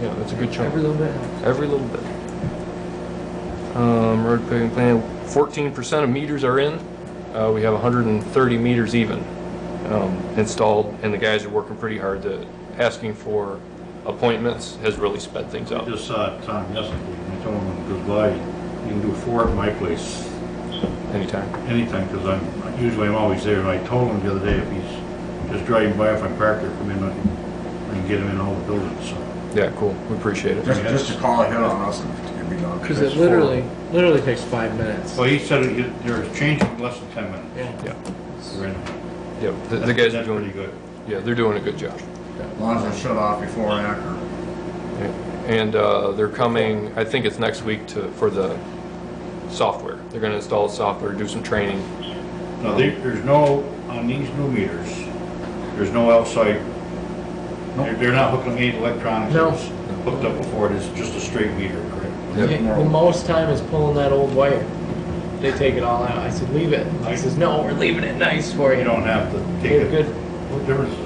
Yeah, that's a good chunk. Every little bit. Every little bit. Um, road paving plan, fourteen percent of meters are in. Uh, we have hundred and thirty meters even, um, installed, and the guys are working pretty hard. The, asking for appointments has really sped things I up. just saw Tom yesterday, and I told him when he goes by, you can do four at my place Anytime. anytime, because I'm, usually I'm always there, and I told him the other day, if he's just driving by, if I'm parked there, come in, I can- I can get him in all the buildings, so. Yeah, cool. We appreciate it. Just, just to call ahead on us if it can be done. Because it literally, literally takes five minutes. Well, he said it- there's change in less than ten minutes. Yeah. Yeah, Right. yeah. The, the guys are That's doing, pretty good. yeah, they're doing a good job. As long as it's shut off before and after. And uh, they're coming, I think it's next week to, for the software. They're going to install the software, do some training. Now, there, there's no, on these new meters, there's no outside, they're, they're not hooking any electronics. No. that's Hooked up before, it is just a straight meter, correct? Yeah. Yeah, The most time is pulling that old wire. They take it all out. I said, leave it. He says, no, we're leaving it nice for You you. don't have to take They're it. good. What difference is it?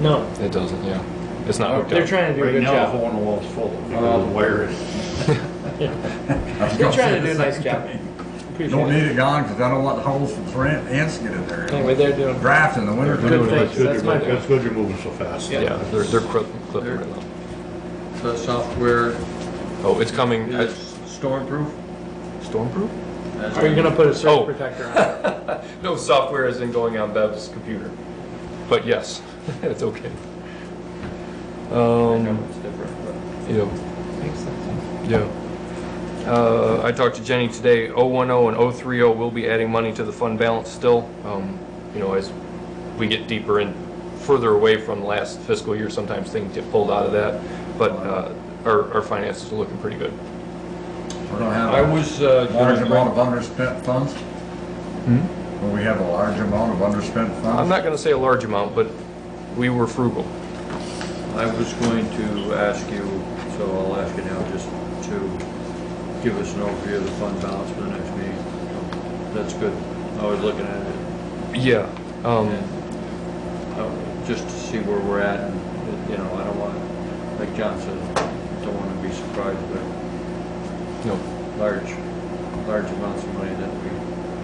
No, It doesn't, yeah. It's not hooked Oh, they're up. trying to do a Right good now, the job. hole in the wall's full because of the wire. They're trying to do a nice job. Appreciate Don't it. need it gone, because I don't want the holes for the ant- ants to get in Anyway, there. they're doing, Draft in the winter. They're doing a Oh, Good good thing. job. That's my point. That's good you're moving so fast. Yeah. Yeah, they're, they're clip- clipping right now. So the software Oh, it's coming, is stormproof? stormproof? are you gonna put a Oh. surge protector on it? No, software isn't going on Bev's computer, but yes, it's okay. I know Um, it's different, but. yeah. Makes sense. Yeah. Uh, I talked to Jenny today, 010 and 030 will be adding money to the fund balance still. Um, You know, as we get deeper and further away from last fiscal year, sometimes things get pulled out of that. But uh, our, our finances are looking pretty good. We're gonna I have was, uh, a large gonna bring- amount of underspent funds. Hmm? Will we have a large amount of underspent I'm funds? not going to say a large amount, but we were frugal. I was going to ask you, so I'll ask you now, just to give us an overview of the fund balance for the next meeting. That's good. I was looking at it, Yeah. um, and, uh, just to see where we're at, and, you know, I don't wanna, like John said, don't wanna be surprised by No. large, large amounts of money that we,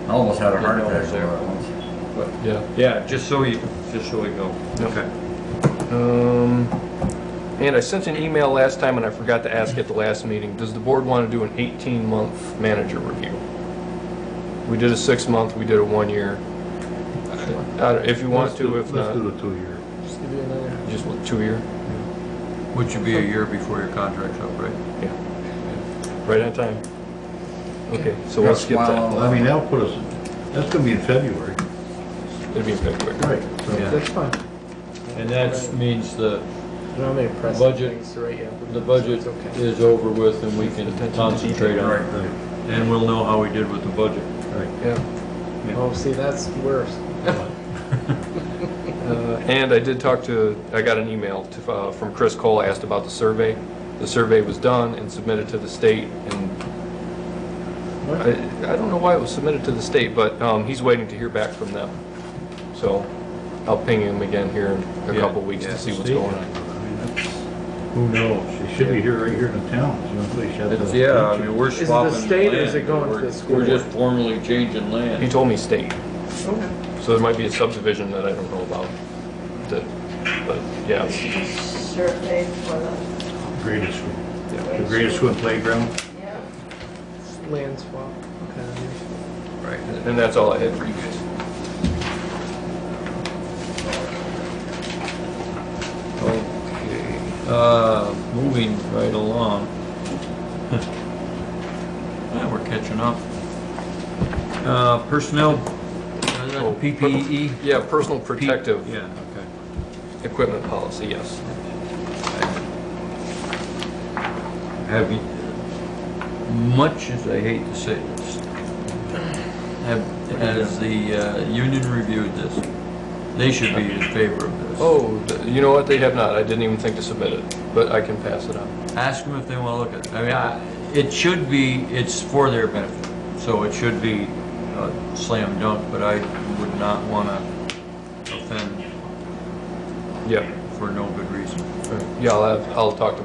I almost had a heart Didn't know it attack was over there. that once. Yeah. but, yeah, just so you, just so we know. Okay. Um, And I sent an email last time, and I forgot to ask at the last meeting, does the board want to do an 18-month manager review? We did a six-month, we did a one-year. I don't- If you want Let's do- to, if Let's not, do the two-year. Just give you another. just two-year, Which would be a year before your contract's up, right? right on time. Okay, so Got we'll a skip smile that. on Well, I mean, that'll put us, that's gonna be in February. It'll be in February. Right. Yeah. That's fine. And that means the, I don't have any pressing Budget- things to write you. the budget It's okay. is over with and we can concentrate on it. Right. And we'll know how we did with the budget. Yeah. Oh, see, that's worse. Uh, And I did talk to, I got an email to- uh, from Chris Cole, asked about the survey. The survey was done and submitted to the state, and I I don't know why it was submitted to the state, but um, he's waiting to hear back from them. So I'll ping him again here in a Yeah, couple weeks yeah. to see what's going on. Who knows? She should be here, right here in the town. It's the only place she had It's- the- Yeah, I mean, we're Is it the swapping. state or is land. it going to We're- the school We're just board? formally changing land. He told me state, Okay. so there might be a subdivision that I don't know about. That, But, yeah, survey for the. Greatest, swim- the greatest swim playground. Yeah. Land swap. Okay. Right. and that's all I had for you guys. Okay, uh, moving right along. Yeah, we're catching up. Uh, personnel, Oh, uh, PPE? Yeah, personal protective Yeah, okay. equipment policy, yes. Have you, much as I hate to say this, have, has the, uh, union reviewed this? They should be in favor of this. Oh, th- you know what, they have not, I didn't even think to submit it, but I can pass it on. Ask them if they wanna look at, it. I mean, I, it should be, it's for their benefit, so it should be a slam dunk, but I would not wanna offend Yeah, for no good reason. yeah, I'll have, I'll talk to